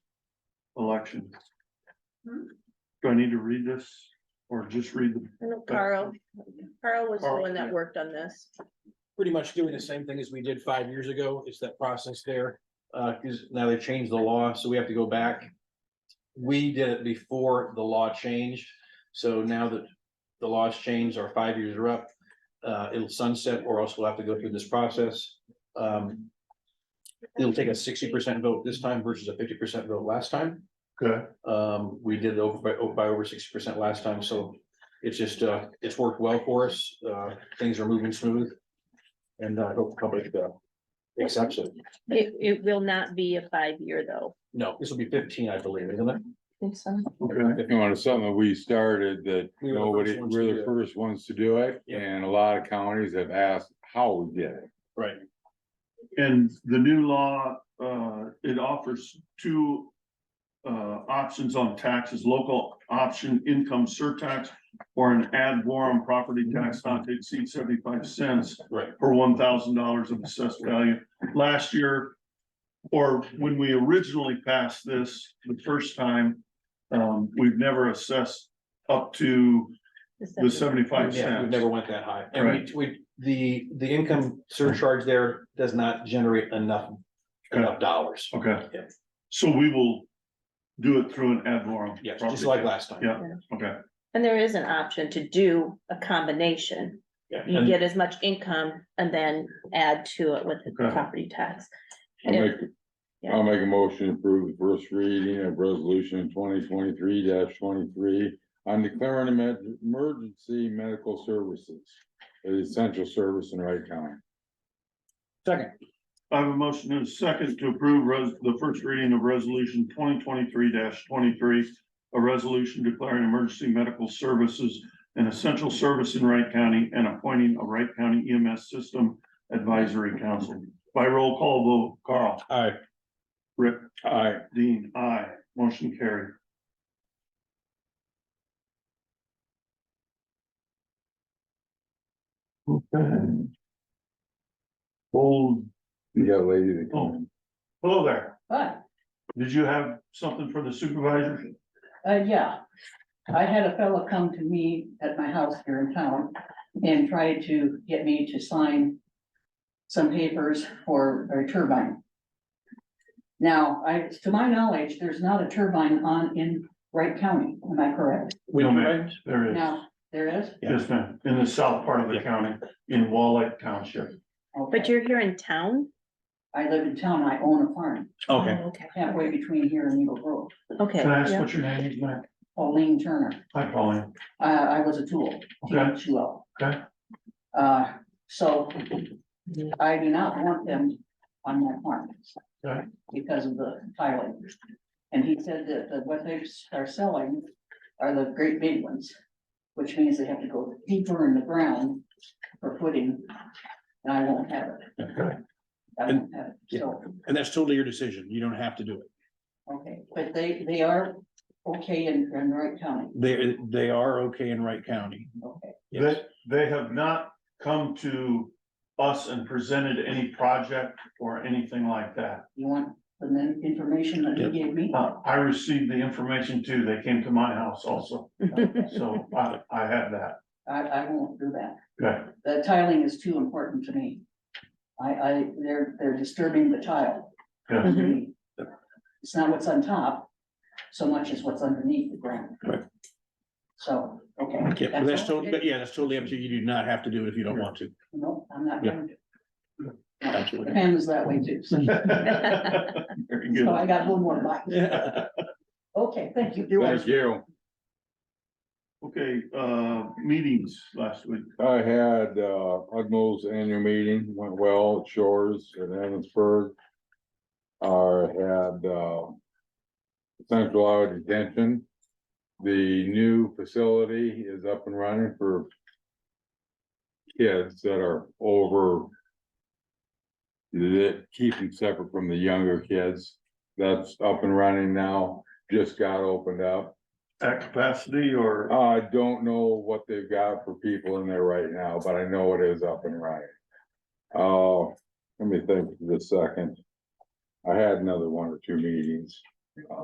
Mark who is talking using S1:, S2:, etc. S1: election.
S2: Hmm?
S1: Do I need to read this or just read the,
S2: I know Carl, Carl was the
S1: Carl,
S2: one that
S1: yeah.
S2: worked on this.
S3: pretty much doing the same thing as we did five years ago, It's that process there. Uh, cause now they've changed the law, so we have to go back. We did it before the law changed, so now that the law's changed, our five years are up. Uh, it'll sunset or else we'll have to go through this process. Um. It'll take a sixty percent vote this time versus a fifty percent vote last time.
S1: okay,
S3: Um, we did it over by, over- by over sixty percent last time, so it's just, uh, it's worked well for us. Uh, things are moving smooth. And I hope the company uh, accepts it.
S2: It, it will not be a five-year though.
S3: No, this will be fifteen, I believe, isn't it?
S1: okay,
S4: You know, it's something that we started that
S3: We were the first ones
S4: nobody,
S3: to
S4: we're
S3: do
S4: the
S3: it.
S4: first ones to do it,
S3: Yeah.
S4: and a lot of counties have asked how we did it.
S3: Right.
S1: and the new law, uh, it offers two. Uh, options on taxes, local option income surtax or an ad valorem property tax not to exceed seventy-five cents.
S3: Right.
S1: per one thousand dollars of assessed value. Last year, or when we originally passed this the first time, um, we've never assessed up to the seventy-five
S3: Yeah, we
S1: cents.
S3: never went that high. And we, we, the, the income surcharge there does not generate enough, enough dollars.
S1: Okay,
S3: Yeah.
S1: so we will do it through an ad valorem.
S3: Yeah, just like last time.
S1: Yeah. Okay,
S2: And there is an option to do a combination.
S3: Yeah.
S2: You
S3: And-
S2: get as much income and then add to it with the
S1: Okay.
S2: property tax.
S4: I'll
S2: Yeah.
S4: make,
S2: Yeah.
S4: I'll make a motion to approve the first reading of resolution twenty twenty-three twenty-three. on declaring an emer- emergency medical services, an essential service in Wright County.
S3: Second.
S1: I have a motion and a second to approve res- the first reading of resolution twenty twenty-three twenty-three. A resolution declaring emergency medical services an essential service in Wright County and appointing a Wright County EMS system advisory council. By roll call vote, Carl,
S3: Aye.
S1: Rick,
S4: Aye.
S1: Dean, I, motion carried. Okay. Old,
S4: You got a lady that
S3: Oh.
S4: come
S1: hello there.
S5: But,
S1: Did you have something for the supervisor?
S5: uh, yeah, I had a fellow come to me at my house here in town and try to get me to sign some papers for a turbine. Now, I, to my knowledge, there's not a turbine on in Wright County, am I correct?
S3: We
S1: No,
S3: don't,
S1: ma'am. There is,
S5: Now, there is?
S3: Yeah.
S1: yes, ma'am, in the south part of the
S3: Yeah.
S1: county, in Wallach Township.
S2: But
S5: Okay,
S2: you're here in town?
S5: I live in town, I own a farm
S3: okay.
S2: Oh, Okay.
S5: halfway between here and Eagle Grove,
S2: Okay.
S1: Can I ask
S2: yeah.
S1: what your name is, ma'am?
S5: Pauline Turner.
S1: Hi, Pauline.
S5: Uh, I was a tool.
S1: Okay.
S5: Too low.
S1: Okay.
S5: Uh, so I do not want them on my farm.
S1: Okay.
S5: Because of the tiling. And he said that the- what they are selling are the great big ones, which means they have to go deeper in the ground for footing. And I won't have it.
S1: Okay.
S5: I won't have it. So,
S3: And that's totally your decision. You don't have to do it.
S5: okay, but they, they are okay in, in Wright County,
S3: They, they are okay in Wright County.
S5: okay,
S3: Yes.
S1: They, they have not come to us and presented any project or anything like that.
S5: you want the min- information that he gave me?
S1: Uh, I received the information too, they came to my house also, so I, I have that.
S5: I, I won't do that.
S1: Okay,
S5: the tiling is too important to me. I, I, they're, they're disturbing the tile. to
S1: okay,
S5: me. It's not what's on top, so much as what's underneath the ground.
S3: Right.
S5: So, okay.
S3: Yeah, but that's
S5: all.
S3: totally, but yeah, that's totally up to you. You do not have to do it if you don't want to.
S5: No, I'm not
S3: Yeah.
S5: going to.
S3: Absolutely.
S5: Pam is that way too, so
S1: Very good.
S5: so I got one more bite.
S3: Yeah.
S5: Okay, thank you.
S4: Thank you.
S1: Okay, uh, meetings last week.
S4: I had, uh, Ugnall's annual meeting, went well at Shores in Evansburg. I had, uh, central hour detention. The new facility is up and running for kids that are over that keep them separate from the younger kids. That's up and running now, just got opened up.
S1: At capacity or?
S4: I don't know what they've got for people in there right now, but I know it is up and running. Uh, let me think for a second. I had another one or two meetings.